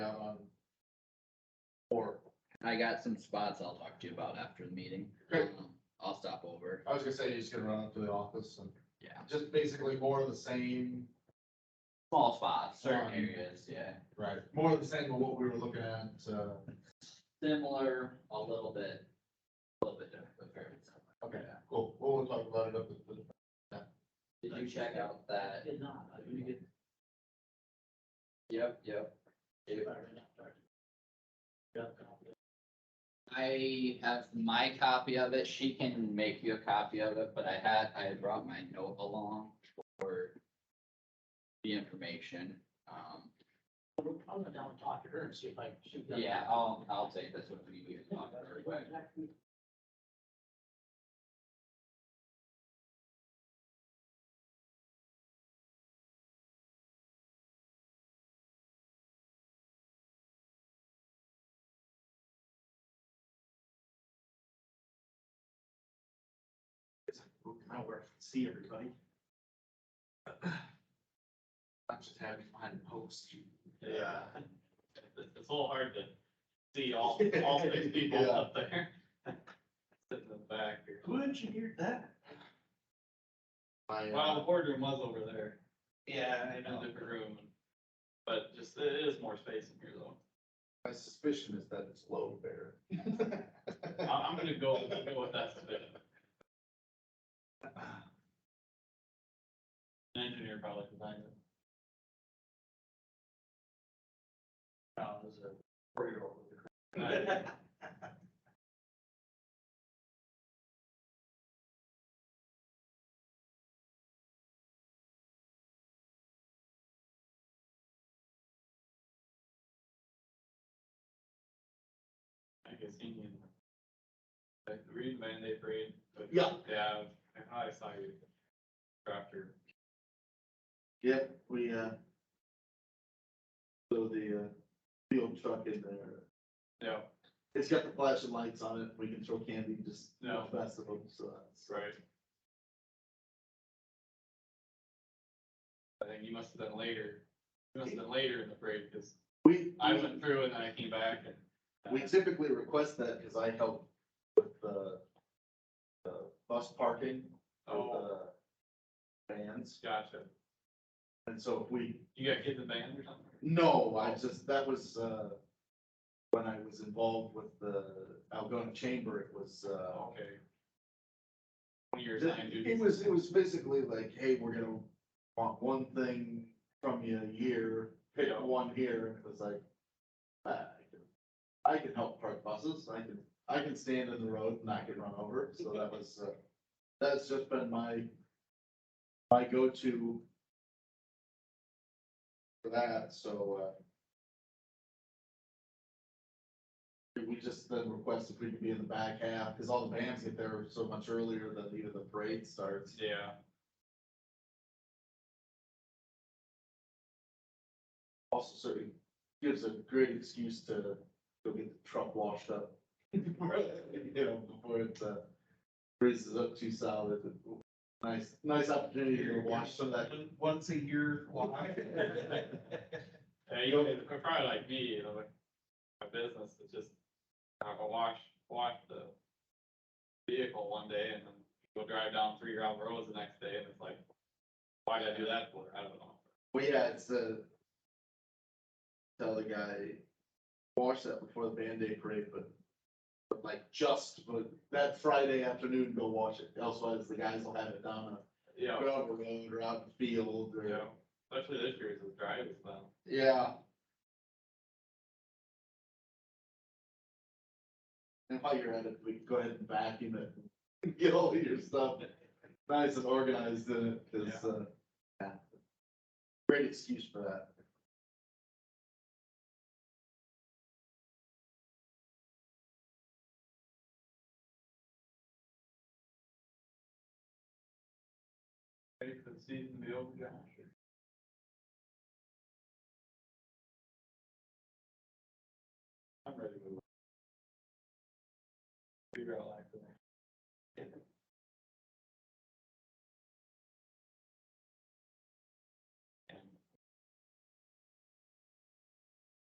um, on. Or, I got some spots I'll talk to you about after the meeting. Great. Um, I'll stop over. I was gonna say, you're just gonna run up to the office and Yeah. just basically more of the same, Small spots, certain Um, areas, yeah. right, more of the same of what we were looking at, uh, Similar, a little bit, a little bit different. but very similar. okay, cool, we'll we'll talk about it up at the. Did you check out that? Did not, I didn't get Yep, yep. it by right after. Got a copy. I have my copy of it. She can make you a copy of it, but I had, I had brought my note along for the information. Um, I'm gonna down and talk to her and see if I can shoot that. yeah, I'll, I'll take this one for you. to talk about real quick. We'll come out where I can see everybody. I'm just happy to find post. Yeah. It's, it's a little hard to see all, all six people Yeah. up there. Sitting in the back here. Who engineered that? Well, the boardroom was over there. Yeah, I know. Different room. But just, it is more space in here though. My suspicion is that it's low there. I- I'm gonna go, go with that suspicion. An engineer probably designed it. No, it was a four-year-old. I guess he knew. Like the Reed Van Day parade. but- Yeah. Yeah, I thought I saw you after. Yeah, we, uh, so the, uh, field truck in there, No, it's got the flashing lights on it, we can throw candy, just No. festival, so that's. right. I think you must have done later, you must have done later in the parade, because We, I went through and then I came back and. uh, we typically request that, because I help with the, the bus parking Oh, of uh, the vans, gotcha. and so if we, You got kids in band or something? no, I just, that was, uh, when I was involved with the Algonah Chamber, it was, uh, Oh, Okay. One year The- assigned It duties. was, it was basically like, hey, we're gonna want one thing from you a year, pick Yeah. one here, and it was like. ah, I can- I can help park buses, I can, I can stand in the road and I can run over, so that was, uh, that's just been my. My go-to. For that, so, uh. We just then request if we could be in the back half, cause all the bands get there so much earlier than even the parade starts. Yeah, also sort of gives a great excuse to go get the truck washed up. You know, before it uh, freezes up too solid. Nice, nice opportunity to wash some of that. Once a year, why? yeah, you, they're probably like me, you know, like, my business is just, I will wash, wash the vehicle one day and then go drive down three round roads the next day and it's like, why did I do that for? I don't know. Well, yeah, it's uh Tell the guy, wash that before the Band-Aid parade, but, but like just, but that Friday afternoon, go wash it. Elsewise, the guys will have it down a Yeah, gravel road or out in the field or. yeah, especially this year it's dry as well. Yeah. And while you're at it, we can go ahead and vacuum it, and get all your stuff nice and organized in it, cause, uh, yeah. Great excuse for that. Ready for the season to be over, Josh? I'm ready to move. Figure out life.